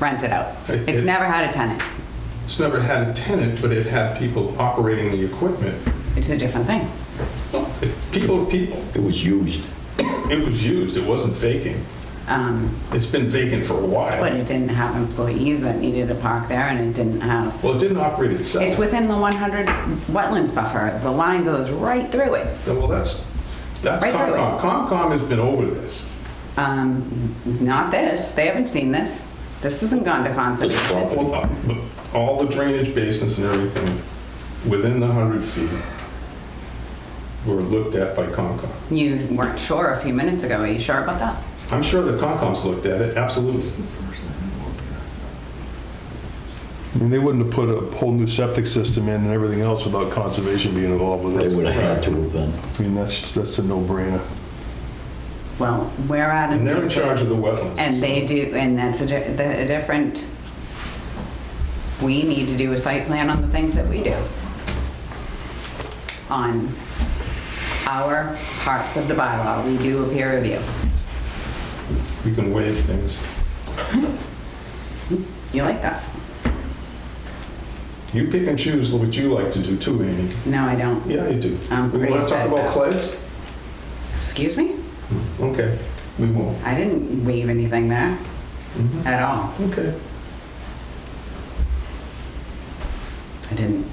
rent it out. It- It's it- never had a tenant. It's never had a tenant, but it had people operating the equipment. It's a different thing. People, to people. It was used. It was used, it wasn't vacant. Um, It's been vacant for a But while. it didn't have employees that needed to park there and it didn't have, Well, it didn't operate itself. it's within the 100 wetlands buffer. The line goes right through it. Well, that's, that's Right through it. Concom. Concom has been over this. Um, Not this, they haven't seen this. This hasn't gone to conservation. property. Well, uh, All the drainage basins and everything within the 100 feet were looked at by Concom. You weren't sure a few minutes ago, are you sure about that? I'm sure that Concom's looked at it, absolutely. I mean, they wouldn't have put a whole new septic system in and everything else without conservation being involved with They would it. have had to have been. I mean, that's, that's a no-brainer. Well, we're at a... And they're in charge of the wetlands. And they do, and that's a di- the- a different, we need to do a site plan on the things that we do. On our parts of the bylaw, we do a peer review. We can waive things. You like that? You pick and choose what you like to do too, Amy. No, I don't. Yeah, you do. I'm We want pretty to talk about steadfast. clays? Excuse me? Okay, we won't. I didn't waive anything there Mhm. at all. Okay. I didn't.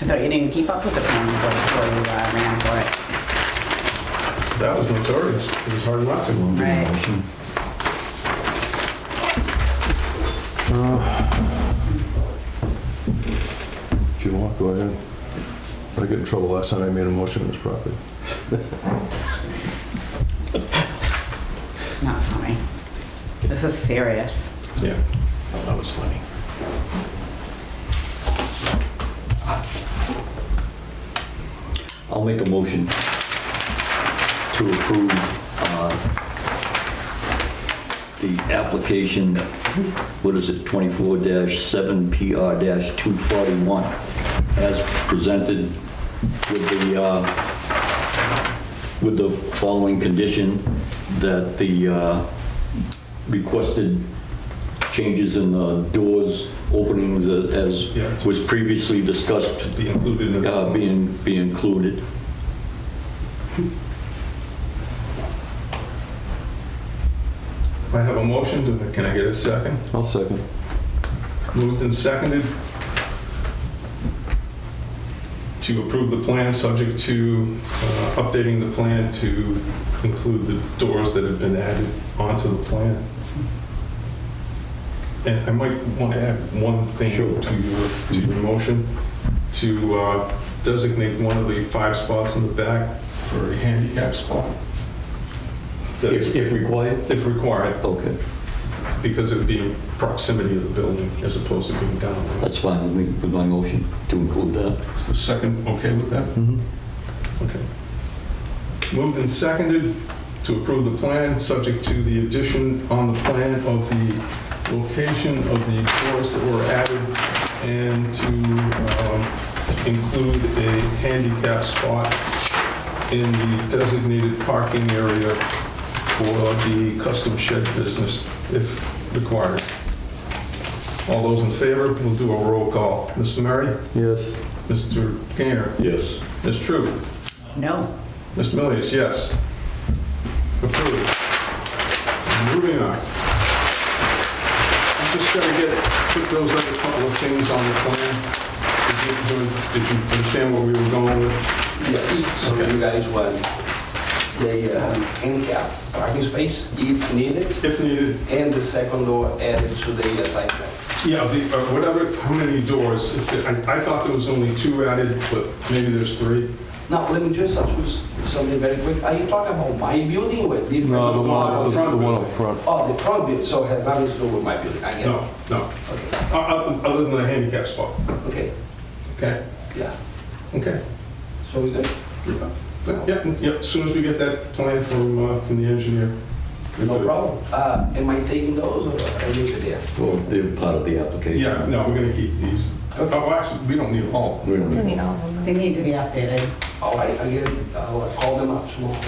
I thought you didn't keep up with the plan before before you uh, ran for it. That was notorious. It was hard not to. Right. If you want, go ahead. I got in trouble last time I made a motion on this property. It's not funny. This is serious. Yeah. That was funny. I'll make a motion to approve uh, the application, what is it, 24-7PR-241, as presented with the, uh, with the following condition, that the uh, requested changes in the doors, openings as Yeah. was previously discussed Be included in uh, the being, be included. I have a motion. to- Can I get a second? I'll second. Moved and seconded to approve the plan, subject to uh, updating the plan to include the doors that have been added onto the plan. And I might want to add one thing Sure. to your, to your motion, to uh, designate one of the five spots in the back for a handicap spot. That's- required? If required, Okay, because it would be in proximity of the building as opposed to being down. that's fine with me, with my motion to include that. Is the second okay with that? Okay. Moved and seconded to approve the plan, subject to the addition on the plan of the location of the doors that were added and to um, include a handicap spot in the designated parking area for the custom shed business if required. All those in favor, we'll do a roll call. Mr. Murray? Yes. Mr. Gainer, Yes. Ms. True, No. Ms. Milius, yes. Approved. Moving on. I'm just gonna get, put those other couple of things on the plan. Did you, did you understand where we were going with? Yes, so Okay. you guys want the uh, handicap parking space if needed, If needed, and the second door added to the uh, site plan. yeah, the, uh, whatever, how many doors? if there- I, I thought there was only two added, but maybe there's three. Now, let me just ask you something very quick. Are you talking about my building or different? No, the one- one, the- the the one one up up front. Oh, the front building, so it has nothing to do with my building, I get it. No, no, Okay, O- o- other than the handicap spot, okay, okay? yeah, Okay. so we good? Yep, yep, as soon as we get that plan from, uh, from the engineer. we're No good. problem. Uh, Am I taking those or I leave it there? Well, they're part of the application. Yeah, no, we're gonna keep these. Oh, Okay. well, actually, we don't need all. We don't need- They need to be updated. All right, I get it, I'll call them up tomorrow.